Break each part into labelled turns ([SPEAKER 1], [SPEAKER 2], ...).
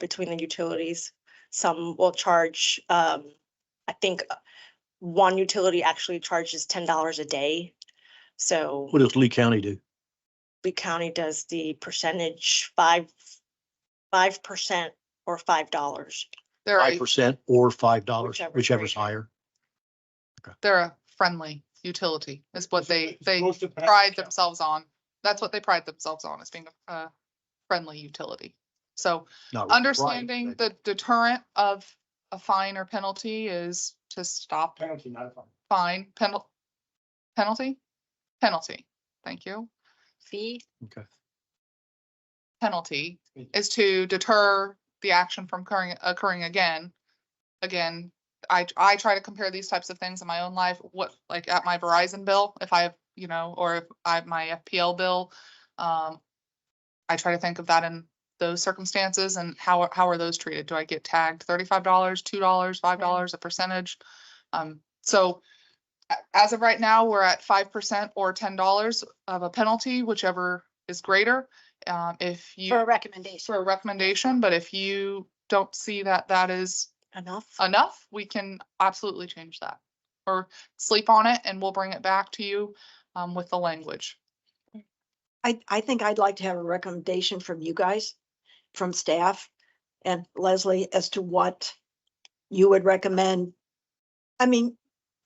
[SPEAKER 1] between the utilities. Some will charge, um, I think uh, one utility actually charges ten dollars a day. So
[SPEAKER 2] What does Lee County do?
[SPEAKER 1] Lee County does the percentage five, five percent or five dollars.
[SPEAKER 3] They're,
[SPEAKER 2] Five
[SPEAKER 3] a
[SPEAKER 2] percent or five dollars,
[SPEAKER 1] Whichever's
[SPEAKER 2] whichever's
[SPEAKER 1] greater.
[SPEAKER 2] higher.
[SPEAKER 3] they're a friendly utility is what they,
[SPEAKER 4] It's
[SPEAKER 3] they
[SPEAKER 4] supposed to pass
[SPEAKER 3] pride
[SPEAKER 4] the town.
[SPEAKER 3] themselves on. That's what they pride themselves on is being a uh, friendly utility. So
[SPEAKER 2] Not right,
[SPEAKER 3] understanding
[SPEAKER 2] but
[SPEAKER 3] the deterrent of a fine or penalty is to stop
[SPEAKER 4] Penalty, not a fine.
[SPEAKER 3] fine penal penalty, penalty. Thank you.
[SPEAKER 1] Fee?
[SPEAKER 2] Okay.
[SPEAKER 3] penalty
[SPEAKER 4] Mm.
[SPEAKER 3] is to deter the action from occurring, occurring again. Again, I, I try to compare these types of things in my own life, what, like at my Verizon bill, if I have, you know, or if I have my FPL bill. Um, I try to think of that in those circumstances and how, how are those treated? Do I get tagged thirty-five dollars, two dollars, five dollars, a percentage? Um, so a- as of right now, we're at five percent or ten dollars of a penalty, whichever is greater. Um, if you
[SPEAKER 5] For a recommendation.
[SPEAKER 3] for a recommendation, but if you don't see that that is
[SPEAKER 1] Enough?
[SPEAKER 3] enough, we can absolutely change that. Or sleep on it and we'll bring it back to you um, with the language.
[SPEAKER 6] I, I think I'd like to have a recommendation from you guys, from staff and Leslie as to what you would recommend. I mean,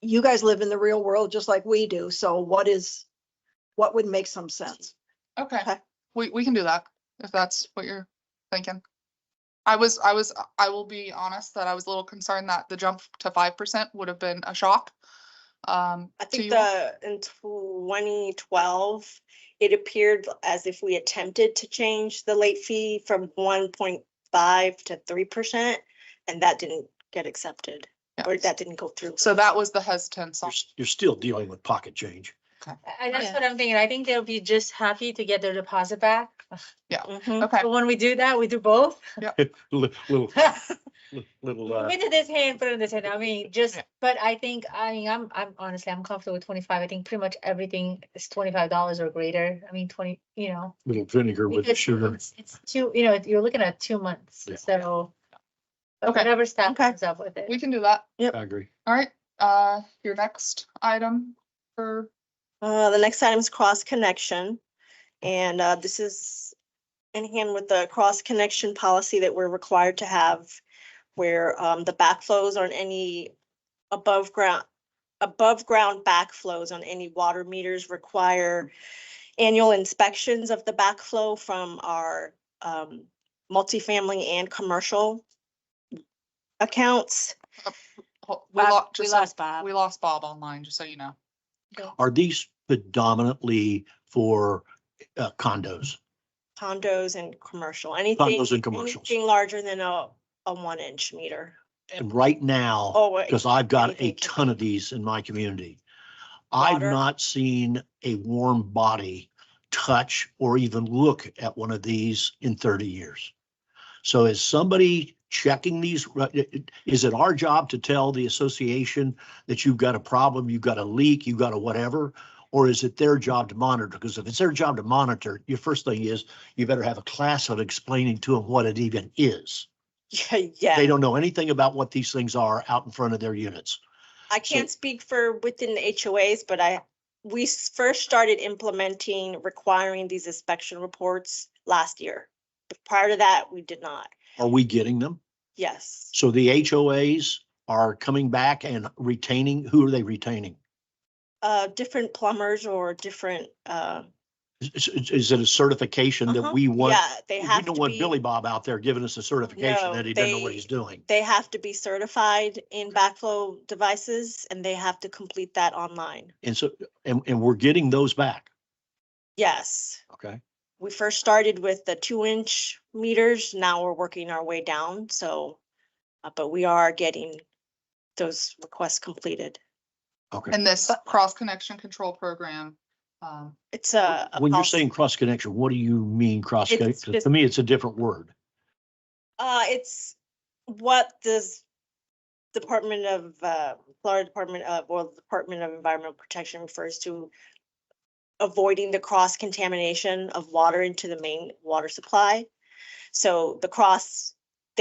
[SPEAKER 6] you guys live in the real world just like we do, so what is, what would make some sense?
[SPEAKER 3] Okay,
[SPEAKER 6] Okay.
[SPEAKER 3] we, we can do that if that's what you're thinking. I was, I was, I will be honest that I was a little concerned that the jump to five percent would have been a shock. Um,
[SPEAKER 1] I
[SPEAKER 3] to
[SPEAKER 1] think
[SPEAKER 3] you all.
[SPEAKER 1] the, in twenty twelve, it appeared as if we attempted to change the late fee from one point five to three percent, and that didn't get accepted,
[SPEAKER 3] Yeah.
[SPEAKER 1] or that didn't go through.
[SPEAKER 3] So that was the hesitance. on-
[SPEAKER 2] You're, s- you're still dealing with pocket change.
[SPEAKER 5] I, that's
[SPEAKER 1] Yeah.
[SPEAKER 5] what I'm thinking. I think they'll be just happy to get their deposit back.
[SPEAKER 1] Mhm.
[SPEAKER 3] Okay,
[SPEAKER 5] But when we do that, we do both.
[SPEAKER 2] Li- Little,
[SPEAKER 5] Win
[SPEAKER 2] li- little, uh,
[SPEAKER 5] to this hand, put in this hand. I mean, just,
[SPEAKER 3] Yeah.
[SPEAKER 5] but I think, I mean, I'm, I'm honestly, I'm comfortable with twenty-five. I think pretty much everything is twenty-five dollars or greater. I mean, twenty, you know.
[SPEAKER 2] little vinegar with the
[SPEAKER 5] because
[SPEAKER 2] sugar.
[SPEAKER 5] It's it's two, you know, you're looking at two months,
[SPEAKER 2] Yeah.
[SPEAKER 5] so. but
[SPEAKER 3] Okay.
[SPEAKER 5] Whatever staff
[SPEAKER 1] Okay.
[SPEAKER 5] comes up with it.
[SPEAKER 3] we can do that.
[SPEAKER 2] I agree.
[SPEAKER 3] All right, uh, your next item for
[SPEAKER 1] Uh, the next item is cross connection. And, uh, this is in hand with the cross connection policy that we're required to have. Where, um, the backflows on any above ground, above ground backflows on any water meters require. Annual inspections of the backflow from our, um, multifamily and commercial. Accounts.
[SPEAKER 3] Ho- We
[SPEAKER 1] Uh,
[SPEAKER 5] Bob-
[SPEAKER 3] lost,
[SPEAKER 5] We
[SPEAKER 3] just, so-
[SPEAKER 5] lost Bob.
[SPEAKER 3] we lost Bob online, just so you know.
[SPEAKER 2] Are these predominantly for uh, condos?
[SPEAKER 1] condos and commercial, anything.
[SPEAKER 2] Condos and commercials.
[SPEAKER 1] Anything larger than a, a one inch meter.
[SPEAKER 2] And right now,
[SPEAKER 1] Oh, wait,
[SPEAKER 2] because I've got a
[SPEAKER 1] anything can
[SPEAKER 2] ton of these in my community. I've
[SPEAKER 1] Water.
[SPEAKER 2] not seen a warm body touch or even look at one of these in thirty years. So is somebody checking these? Is it our job to tell the association that you've got a problem, you've got a leak, you've got a whatever? Or is it their job to monitor? Because if it's their job to monitor, your first thing is you better have a class of explaining to them what it even is. They
[SPEAKER 1] Yeah,
[SPEAKER 2] don't know anything about what these things are out in front of their units.
[SPEAKER 1] I can't speak for within the HOAs, but I, we s- first started implementing requiring these inspection reports last year. But Prior to that, we did not.
[SPEAKER 2] Are we getting them?
[SPEAKER 1] Yes,
[SPEAKER 2] So the HOAs are coming back and retaining, who are they retaining?
[SPEAKER 1] uh, different plumbers or different, uh.
[SPEAKER 2] Is, is- is it a certification that
[SPEAKER 1] uh-huh,
[SPEAKER 2] we want?
[SPEAKER 1] Yeah, they
[SPEAKER 2] We
[SPEAKER 1] have to
[SPEAKER 2] don't want
[SPEAKER 1] be-
[SPEAKER 2] Billy Bob out there giving us a certification
[SPEAKER 1] No,
[SPEAKER 2] that he doesn't know what
[SPEAKER 1] they-
[SPEAKER 2] he's doing.
[SPEAKER 1] They have to be certified in backflow devices and they have to complete that online.
[SPEAKER 2] And so, and, and we're getting those back,
[SPEAKER 1] Yes.
[SPEAKER 2] okay?
[SPEAKER 1] we first started with the two inch meters, now we're working our way down, so. Uh, but we are getting those requests completed.
[SPEAKER 2] Okay.
[SPEAKER 3] And this cross connection control program, um,
[SPEAKER 1] It's a. a
[SPEAKER 2] When you're
[SPEAKER 1] policy.
[SPEAKER 2] saying cross connection, what do you mean cross
[SPEAKER 1] Uh, It's
[SPEAKER 2] connection?
[SPEAKER 1] just-
[SPEAKER 2] To me, it's a different word.
[SPEAKER 1] Uh, it's what this Department of, uh, Florida Department of, well, Department of Environmental Protection refers to. Avoiding the cross contamination of water into the main water supply. So the cross